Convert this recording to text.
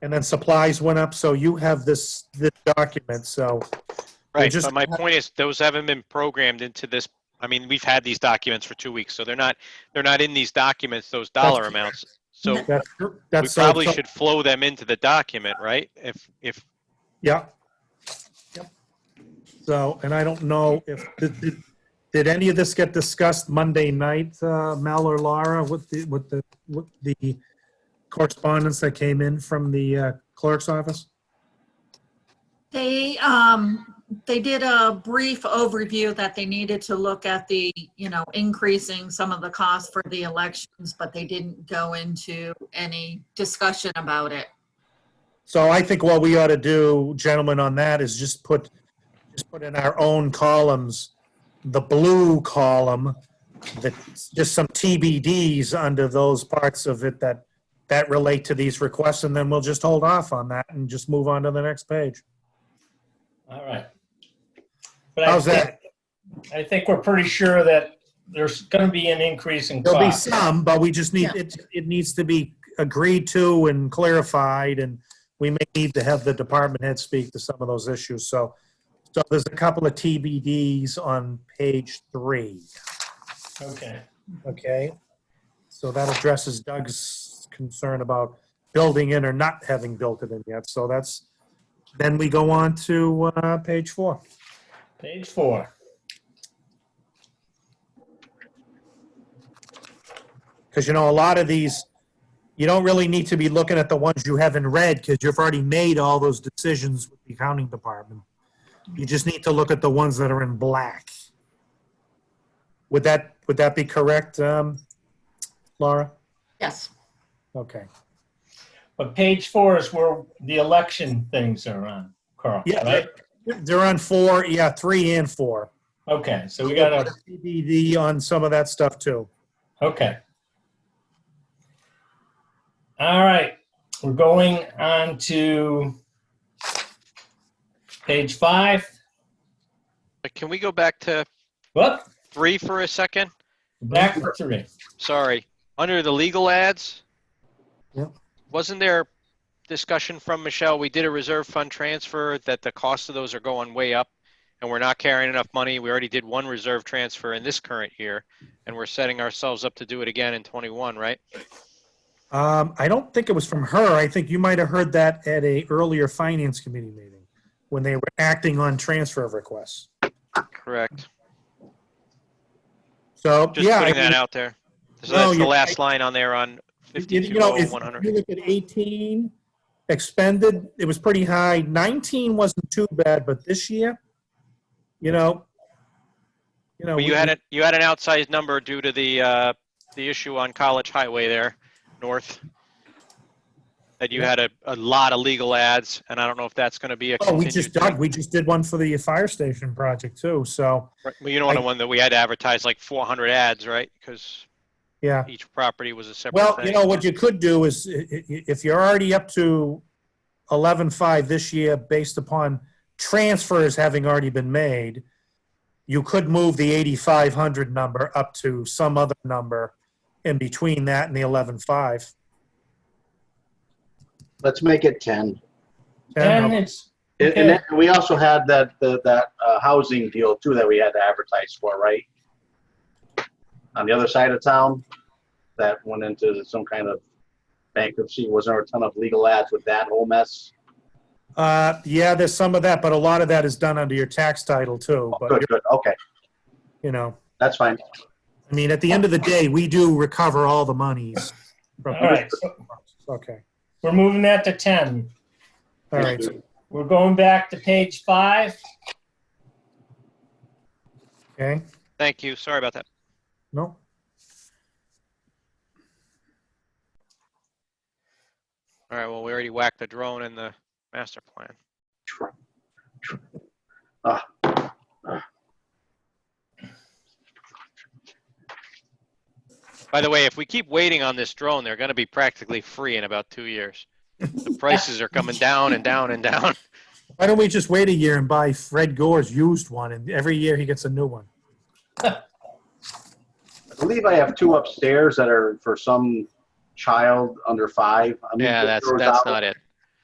And then supplies went up, so you have this, this document, so, They Right, just- but my point is, those haven't been programmed into this, I mean, we've had these documents for two weeks, so they're not, they're not in these documents, those dollar correct. amounts. So that's, we that's. so- probably so- should flow them into the document, right? If, if, Yeah. Yep. So, and I don't know if, did, did- did any of this get discussed Monday night, uh, Mel or Laura, with the, with the, with the correspondence that came in from the uh, clerk's office? They, um, they did a brief overview that they needed to look at the, you know, increasing some of the costs for the elections, but they didn't go into any discussion about it. So I think what we ought to do, gentlemen, on that is just put, just put in our own columns, the blue column, that, just some TBDs under those parts of it that, that relate to these requests, and then we'll just hold off on that and just move on to the next page. All right. But I How's that? think- I think we're pretty sure that there's going to be an increase in There'll be cost. some, but we just need, Yeah. it, it needs to be agreed to and clarified, and we may need to have the department head speak to some of those issues, so. So there's a couple of TBDs on page three, Okay, okay? So that addresses Doug's concern about building in or not having built it in yet, so that's, then we go on to, uh, page four. page four. Because you know, a lot of these, you don't really need to be looking at the ones you haven't read because you've already made all those decisions with the accounting department. You just need to look at the ones that are in black. Would that, would that be correct, um, Laura? Yes. Okay. But page four is where the election things are on, Carl, Yeah. right? They're on four, yeah, three and four. Okay, so we got to, TBD on some of that stuff too. okay. All right, we're going on to page five. but can we go back to Whoop, three for a second? back to three. Sorry, under the legal ads? Yep. Wasn't there discussion from Michelle, we did a reserve fund transfer, that the cost of those are going way up? And we're not carrying enough money, we already did one reserve transfer in this current year, and we're setting ourselves up to do it again in twenty-one, right? Um, I don't think it was from her. I think you might have heard that at a earlier finance committee meeting when they were acting on transfer requests. Correct. So, Just yeah. I putting mean- that out there. So No, that's the you're last line on oh, there on You- you know, if 520100. You look at 18 expended, it was pretty high. 19 wasn't too bad, but this year, you know, you know. But you we- had it, you had an outsized number due to the, uh, the issue on College Highway there, north. That you had a, a lot of legal ads, and I don't know if that's gonna be a Oh, we continued just thing. dug, we just did one for the fire station project too, so, Right, Well, you know, the one that we had to advertise like 400 ads, right? Because yeah. each property was a separate Well, you thing. know, what you could do is, i- i- if you're already up to 11.5 this year, based upon transfers having already been made, you could move the 8,500 number up to some other number in between that and the 11.5. Let's make it 10. And it's, And- And then we also had that, the- that uh, housing deal too that we had to advertise for, right? On the other side of town, that went into some kind of bankruptcy. Was there a ton of legal ads with that whole mess? Uh, yeah, there's some of that, but a lot of that is done under your tax title too. But, Good, good, okay, you know, that's fine. I mean, at the end of the day, we do recover all the monies. all from- right, so Okay, we're moving that to 10. all right. We're going back to page five. Okay, Thank you. Sorry about that. no, All right, well, we already whacked the drone and the master plan. By the way, if we keep waiting on this drone, they're gonna be practically free in about two years. The prices are coming down and down and down. why don't we just wait a year and buy Fred Gore's used one and every year he gets a new one? I believe I have two upstairs that are for some child under five. I mean, Yeah, that's, there was that's out- not it.